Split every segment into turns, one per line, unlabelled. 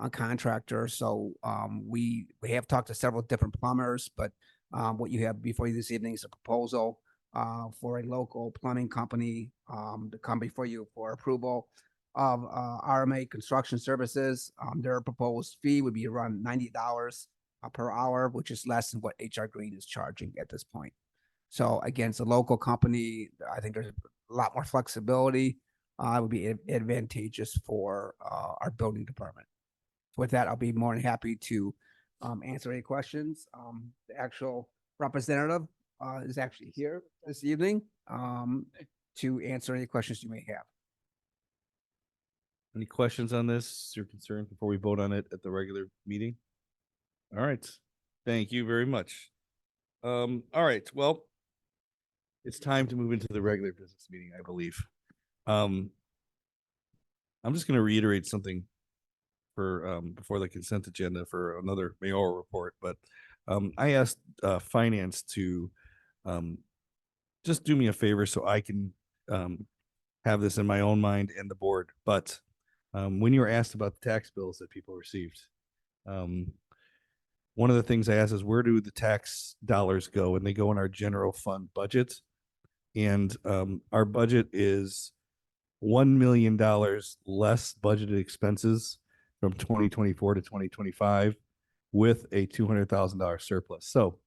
uh, contractor. So um, we, we have talked to several different plumbers, but um, what you have before you this evening is a proposal uh, for a local plumbing company um, to come before you for approval of uh, RMA Construction Services. Um, Their proposed fee would be around ninety dollars uh, per hour, which is less than what HR Green is charging at this point. So again, it's a local company. I think there's a lot more flexibility. Uh, it would be ad- advantageous for, uh, our building department. With that, I'll be more than happy to, um, answer any questions. Um, the actual representative, uh, is actually here this evening, um, to answer any questions you may have.
Any questions on this, your concern before we vote on it at the regular meeting? All right, thank you very much. Um, all right, well, it's time to move into the regular business meeting, I believe. Um, I'm just gonna reiterate something for, um, before the consent agenda for another mayoral report, but, um, I asked, uh, finance to, um, just do me a favor so I can, um, have this in my own mind and the board, but um, when you were asked about the tax bills that people received, um, one of the things I asked is where do the tax dollars go? And they go in our general fund budget. And um, our budget is $1 million less budgeted expenses from 2024 to 2025 with a $200,000 surplus. So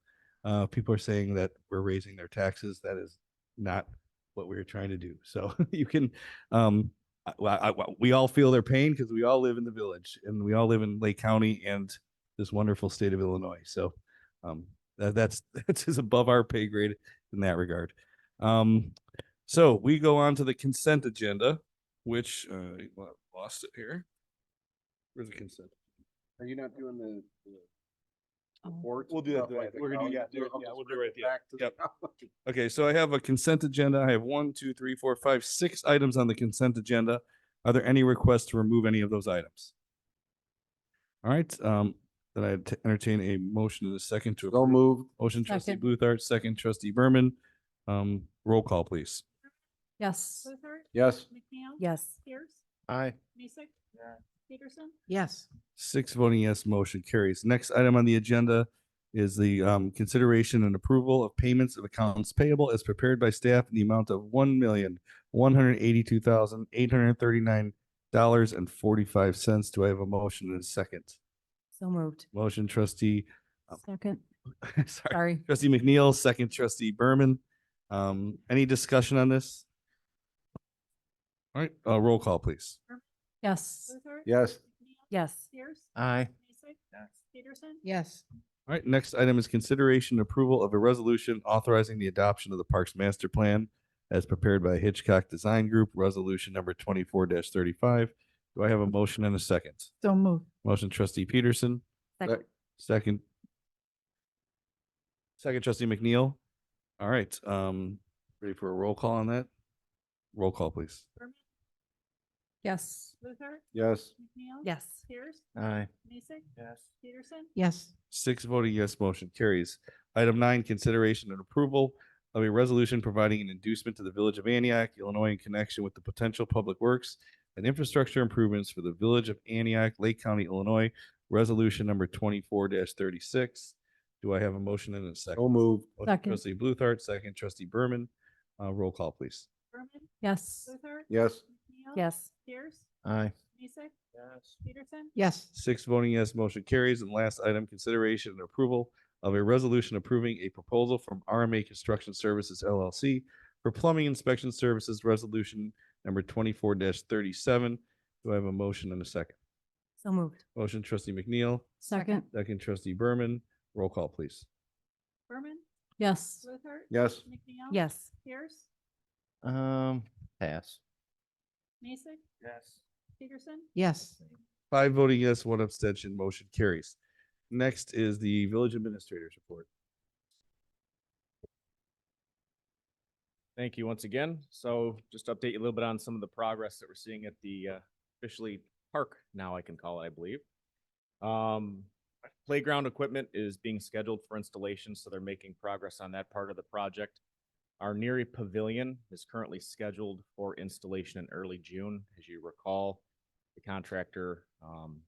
uh, people are saying that we're raising their taxes. That is not what we we're trying to do. So you can, um, I- well, I- well, we all feel their pain because we all live in the village and we all live in Lake County and this wonderful state of Illinois. So um, that, that's that's just above our pay grade in that regard. Um, so we go on to the consent agenda, which uh, well, I lost it here. Where's the consent?
Are you not doing the- the
Oh.
report?
We'll do that
stuff
right-
like the
we're gonna do
county?
that. Do it-
I'll
yeah,
just
we'll do it
bring
right at the
back to the
Yep.
county.
Okay, so I have a consent agenda. I have one, two, three, four, five, six items on the consent agenda. Are there any requests to remove any of those items? All right, um, then I t- entertain a motion in a second to.
So
approve.
moved.
Motion trustee
Second.
Bluthart, second trustee Berman. Um, roll call, please.
Yes.
Luther?
Yes.
McNeil?
Yes.
Pierce?
Aye.
Mason? Peterson?
Yes.
Six voting yes, motion carries. Next item on the agenda is the um consideration and approval of payments of accounts payable as prepared by staff in the amount of one million, one hundred eighty-two thousand, eight hundred thirty-nine dollars and forty-five cents. Do I have a motion and a second?
So moved.
Motion trustee,
Second.
sorry,
Sorry.
trustee McNeil, second trustee Berman. Um, any discussion on this? All right, uh, roll call, please.
Yes.
Luther?
Yes.
McNeil?
Yes.
Pierce?
Aye.
Mason? Peterson?
Yes.
All right, next item is consideration and approval of a resolution authorizing the adoption of the Parks Master Plan as prepared by Hitchcock Design Group, resolution number twenty-four thirty-five. Do I have a motion and a second?
So moved.
Motion trustee Peterson,
Second.
second. Second trustee McNeil. All right, um, ready for a roll call on that? Roll call, please.
Berman?
Yes.
Luther?
Yes.
McNeil?
Yes.
Pierce?
Aye.
Mason?
Yes.
Peterson?
Yes.
Six voting yes, motion carries. Item nine, consideration and approval of a resolution providing an inducement to the Village of Antioch, Illinois in connection with the potential public works and infrastructure improvements for the Village of Antioch, Lake County, Illinois, resolution number twenty-four thirty-six. Do I have a motion and a second?
So moved.
Motion
Second.
Trustee Bluthart, second trustee Berman. Uh, roll call, please.
Berman?
Yes.
Luther?
Yes.
McNeil?
Yes.
Pierce?
Aye.
Mason?
Yes.
Peterson?
Yes.
Six voting yes, motion carries. And last item, consideration and approval of a resolution approving a proposal from RMA Construction Services LLC for plumbing inspection services resolution number twenty-four thirty-seven. Do I have a motion and a second?
So moved.
Motion trustee McNeil,
Second.
second trustee Berman. Roll call, please.
Berman?
Yes.
Luther?
Yes.
McNeil?
Yes.
Pierce?
Um, pass.
Mason?
Yes.
Peterson?
Yes.
Five voting yes, one abstention, motion carries. Next is the village administrators report.
Thank you once again. So just to update you a little bit on some of the progress that we're seeing at the uh, officially park now, I can call it, I believe. Um, playground equipment is being scheduled for installation, so they're making progress on that part of the project. Our Neary Pavilion is currently scheduled for installation in early June. As you recall, the contractor um,